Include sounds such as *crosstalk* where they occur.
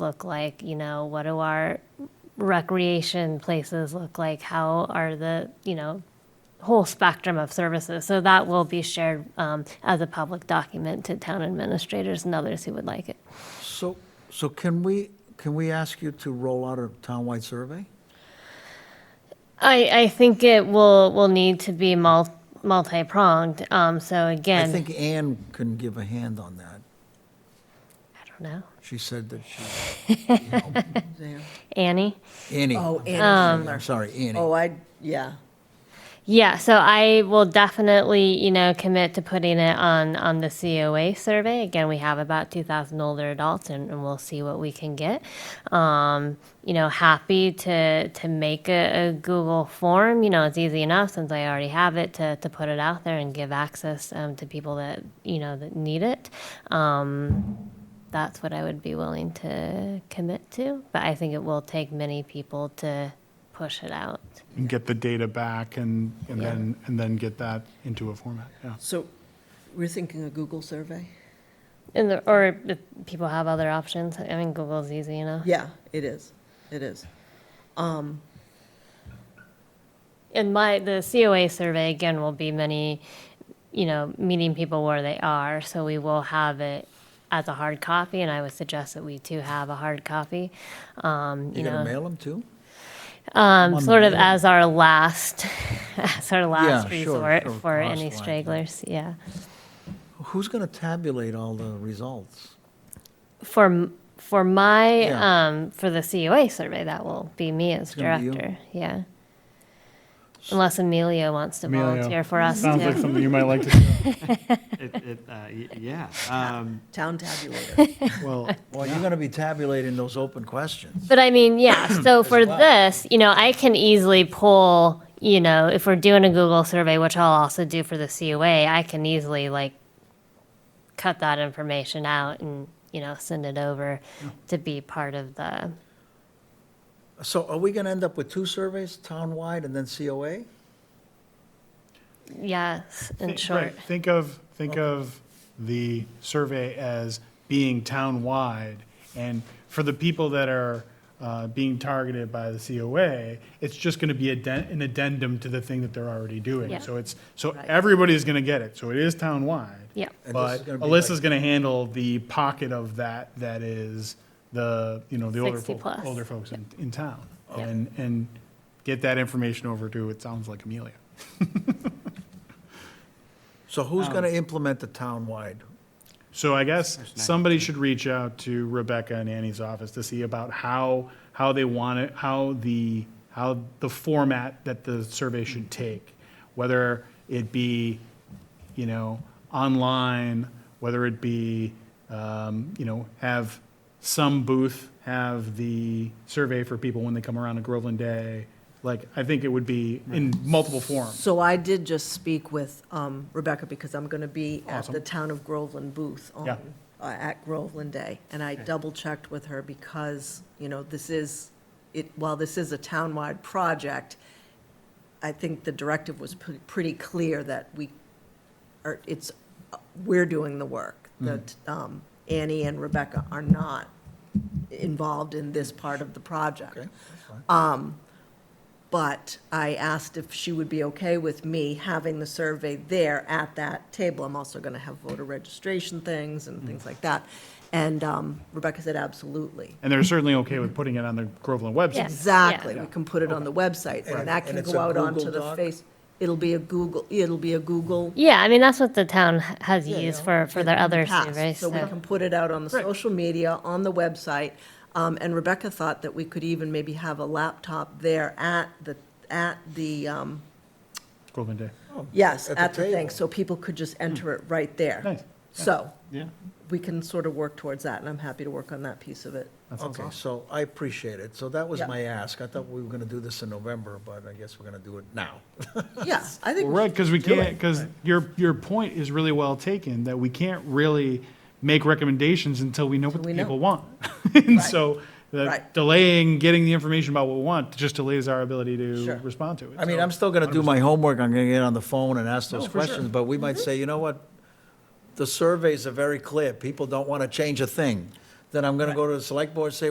look like? You know, what do our recreation places look like? How are the, you know, whole spectrum of services? So that will be shared um, as a public document to town administrators and others who would like it. So, so can we, can we ask you to roll out a townwide survey? I, I think it will, will need to be mul- multi-pronged. Um, so I again, think Ann can give a hand on that. I don't know. She said that she, you know, Annie? Annie. Oh, Annie Schindler. I'm sorry, Annie. Oh, I, yeah. Yeah, so I will definitely, you know, commit to putting it on on the COA survey. Again, we have about 2,000 older adults, and, and we'll see what we can get. Um, you know, happy to to make a, a Google form. You know, it's easy enough since I already have it to to put it out there and give access um, to people that you know that need it. Um, that's what I would be willing to commit to, but I think it will take many people to push it out. and get the data back and, and Yeah. then, and then get that into a format, yeah. So we're thinking a Google survey? And the, or if people have other options. I mean, Google's easy, you know. Yeah, it is. It is. Um, And my the COA survey again will be many, you know, meeting people where they are. So we will have it as a hard copy, and I would suggest that we too have a hard copy. Um, you You gonna know, mail them too? um, on sort of mail? as our last, *laughs* as our last sure, resort sure, for last any line, yeah. stragglers. Yeah, Who's gonna tabulate all the results? for m- for my Yeah. um, for the COA survey, that will be me as gonna be you. director. Yeah. Unless Emilio wants to Emilio, volunteer for us Sounds too. like something you might *laughs* like to do. It, it, uh, y- yeah. Um, town tabulator. Well, Well, you're gonna be tabulating those open questions. But I mean, *clears throat* yeah, so for this, you know, I can easily pull, you know, if we're doing a Google survey, which I'll also do for the COA, I can easily like cut that information out and, you know, send it over to be part of the, So are we gonna end up with two surveys, townwide and then COA? yes, *laughs* in Think- short. right, Think of, think of the survey as being town-wide, and for the people that are uh, being targeted by the COA, it's just going to be aden- an addendum to the thing that they're already Yeah. doing. So it's, so everybody's going to get it, so it is town-wide. Yeah. And this is But gonna be like- Alyssa's going to handle the pocket of that, that is the, you know, the older, 60 fol- plus. older folks in, in town. Yeah. And, and get that information over to, it sounds like Amelia. So who's gonna implement the townwide? So I guess somebody should reach out to Rebecca and Annie's office to see about how, how they want it, how the, how the format that the survey should take. Whether it be, you know, online, whether it be, um, you know, have some booth have the survey for people when they come around to Groveland Day. Like, I think it would be in multiple forms. So I did just speak with um, Rebecca because I'm going to be at the Awesome. Town of Groveland booth on, Yeah. uh, at Groveland Day. And I double-checked with her because, you know, this is, it, while this is a town-wide project, I think the directive was pre- pretty clear that we are, it's, we're doing the work. Mm-hmm. That um, Annie and Rebecca are not involved in this part of the project. Okay, Uh, But I asked if she would be okay with me having the survey there at that table. I'm also going to have voter registration things and things like that. And um, Rebecca said, absolutely. And they're certainly okay with putting it on the Groveland website. Yes. Exactly, we can put it on the website, And- and that and can it's go a out onto Google the Doc? face. It'll be a Google, it'll be a Google. Yeah, I mean, that's what the town h- has used for, for their in the other past, surveys, So we so- can put it out on the social media, on the website. Um, And Rebecca thought that we could even maybe have a laptop there at the, at the um, Groveland Day. Yes, At the at the thing, table. so people could just enter it right there. Nice. So, Yeah. we can sort of work towards that, and I'm happy to work on that piece of it. That sounds Okay, awesome. so I appreciate it. So that was Yeah. my ask. I thought we were gonna do this in November, but I guess we're gonna do it now. *laughs* Yeah, I think, Well, right, because we can't, because your, your point is really well taken, that we can't really make recommendations until we know what the Until we know. people want. *laughs* And so Right. that delaying getting the information about what we want just delays our ability to Sure. respond to it. I mean, So- I'm still going to do my homework, I'm going to get on the phone and ask those No, Oh, for sure. Mm-hmm. questions, but we might say, you know what? The surveys are very clear, people don't want to change a thing. then I'm gonna go to the select board, and say,